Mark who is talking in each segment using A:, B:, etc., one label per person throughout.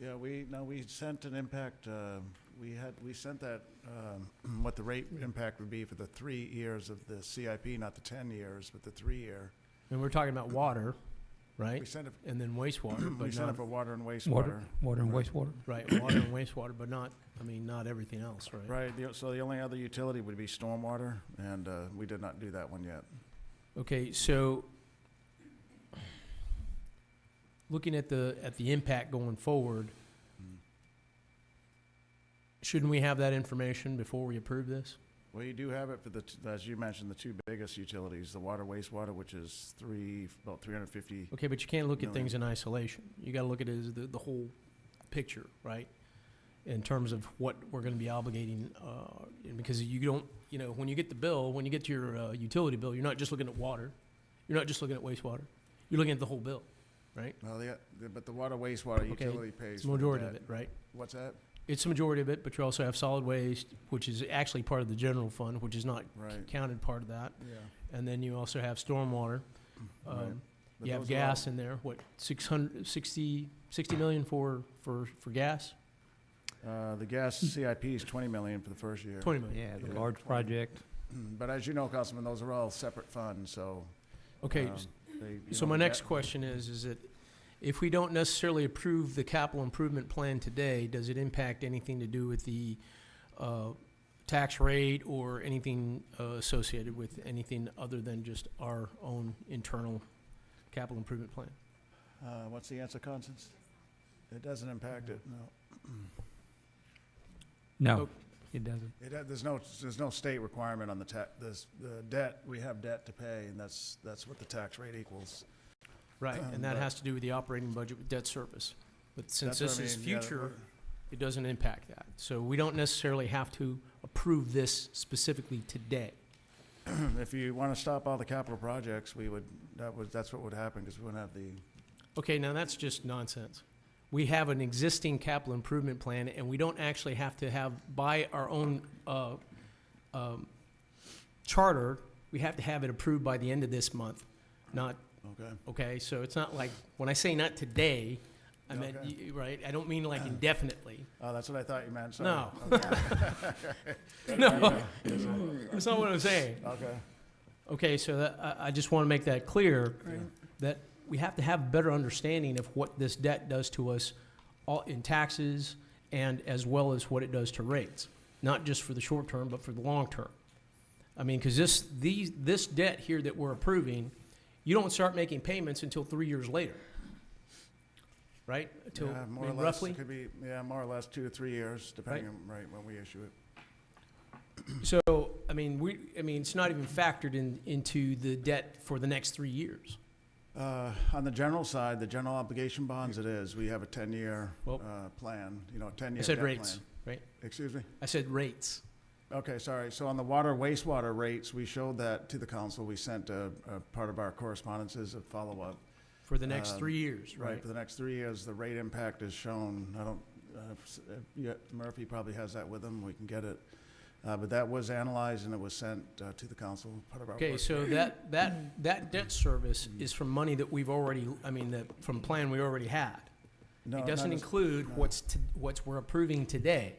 A: Yeah, we, no, we sent an impact, uh, we had, we sent that, um, what the rate impact would be for the three years of the CIP, not the 10 years, but the three-year.
B: And we're talking about water,
A: We
B: right?
A: sent it,
B: And then wastewater,
A: we
B: but
A: sent it
B: not,
A: for water and wastewater.
C: Water, water and
A: Right.
C: wastewater.
B: right, water and wastewater, but not, I mean, not everything else, right?
A: Right, the- so the only other utility would be stormwater, and uh, we did not do that one yet.
B: Okay, so looking at the, at the impact going forward, Mm-hmm.
A: Mm.
B: shouldn't we have that information before we approve this?
A: Well, you do have it for the, t- as you mentioned, the two biggest utilities, the water, wastewater, which is three, about 350.
B: Okay, but you can't look at things in isolation. You gotta look at it as the, the whole picture, right? In terms of what we're gonna be obligating, uh, and because you don't, you know, when you get the bill, when you get to your, uh, utility bill, you're not just looking at water. You're not just looking at wastewater. You're looking at the whole bill.
A: Well, the, the- but the water, wastewater
B: Okay,
A: utility pays
B: It's
A: for
B: the
A: the
B: majority
A: debt.
B: of it, right?
A: What's that?
B: It's the majority of it, but you also have solid waste, which is actually part of the general fund, which is not
A: Right,
B: counted part of that.
A: yeah.
B: And then you also have stormwater.
A: Right.
B: Um,
A: But
B: You have
A: those are all-
B: gas in there, what, six hundred, sixty, sixty million for, for, for gas?
A: Uh, the gas
B: Hmm.
A: CIP is 20 million for the first year.
B: Twenty million.
C: Yeah,
A: Okay.
C: the large project.
A: But as you know, Councilman, those are all separate funds, so.
B: Okay,
A: um,
B: s-
A: they- you
B: so
A: know,
B: my
A: the
B: next
A: ga-
B: question is, is that if we don't necessarily approve the capital improvement plan today, does it impact anything to do with the, uh, tax rate or anything, uh, associated with anything other than just our own internal capital improvement plan?
A: Uh, what's the answer, Constance? It doesn't impact it, no.
B: Hmm.
C: No,
B: Oh.
C: it doesn't.
A: It, uh, there's no, there's no state requirement on the ta, this, the debt, we have debt to pay, and that's, that's what the tax rate equals.
B: Right, and that
A: Right.
B: has to do with the operating budget with debt service. But since
A: Um, That's what
B: this
A: I
B: is
A: mean, yeah,
B: future, it doesn't impact that. So we don't necessarily have to approve this specifically today.
A: we're- If you wanna stop all the capital projects, we would, that would, that's what would happen, because we wouldn't have the,
B: Okay, now that's just nonsense. We have an existing capital improvement plan, and we don't actually have to have, by our own uh, um, charter, we have to have it approved by the end of this month, not,
A: okay?
B: okay? So it's not like, when I say not today, I meant,
A: Okay.
B: y- right, I don't mean like indefinitely.
A: Oh, that's what I thought you meant, sorry.
B: No.
A: Okay.
B: No, that's not what I'm saying.
A: Okay,
B: Okay, so that, I, I just want to make that clear,
A: Right.
B: that we have to have a better understanding of what this debt does to us all in taxes and as well as what it does to rates, not just for the short term, but for the long term. I mean, because this, these, this debt here that we're approving, you don't start making payments until three years later. Right? Until,
A: yeah,
B: I
A: more or
B: mean,
A: less,
B: roughly?
A: it could be, yeah, more or less two to three years, depending on, right, when we issue it.
B: So, I mean, we, I mean, it's not even factored in, into the debt for the next three years.
A: Uh, On the general side, the general obligation bonds it is, we have a 10-year
B: Well-
A: uh, plan, you know, a 10-year debt
B: I
A: plan.
B: said rates, right?
A: Excuse me?
B: I said rates.
A: Okay, sorry. So on the water wastewater rates, we showed that to the council. We sent a, a part of our correspondences of follow-up.
B: For the next
A: Um,
B: three years, right?
A: For the next three years, the rate impact is shown. I don't, uh, s- uh, yeah, Murphy probably has that with him. We can get it. Uh, But that was analyzed and it was sent uh, to the council, part of our
B: Okay,
A: work.
B: so that, that, that debt service
A: Mm-hmm.
B: is from money that we've already, I mean, that, from plan we already had.
A: No,
B: It
A: not
B: doesn't
A: as-
B: include
A: no.
B: what's, to- what's we're approving today.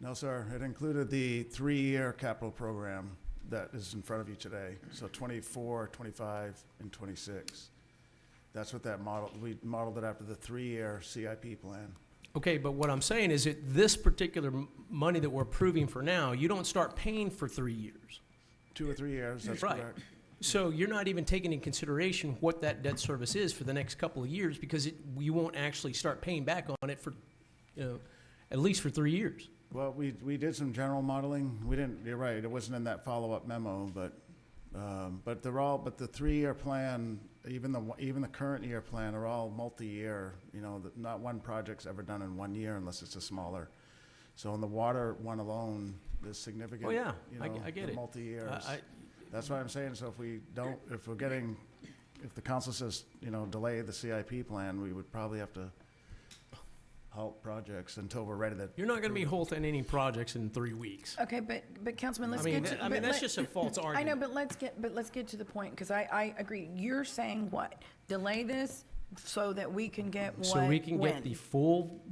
A: No, sir. It included the three-year capital program that is in front of you today. So 24, 25, and 26. That's what that model, we modeled it after the three-year CIP plan.
B: Okay, but what I'm saying is that this particular m- money that we're approving for now, you don't start paying for three years.
A: Two or three years, that's
B: Right.
A: correct.
B: So
A: Mm-hmm.
B: you're not even taking into consideration what that debt service is for the next couple of years because it, you won't actually start paying back on it for, you know, at least for three years.
A: Well, we, we did some general modeling. We didn't, you're right, it wasn't in that follow-up memo, but, um, but they're all, but the three-year plan, even the, one- even the current year plan are all multi-year. You know, that not one project's ever done in one year unless it's a smaller. So in the water one alone, there's significant.
B: Oh, yeah.
A: you
B: I-
A: know,
B: I get
A: the
B: it.
A: Multi-years.
B: I- I-
A: That's what I'm saying. So if we don't, if we're getting, if the council says, you know, delay the CIP plan, we would probably have to halt projects until we're ready to
B: You're not gonna be halting any projects in three weeks.
D: Okay, but, but Councilman,
B: I
D: let's
B: mean,
D: get
B: that- I
D: to.
B: mean,
D: but
B: that's
D: let-
B: just a false
D: I know,
B: argument.
D: but let's get, but let's get to the point, because I, I agree. You're saying what? Delay this so that we can get what?
B: So we can get
D: when?
B: the full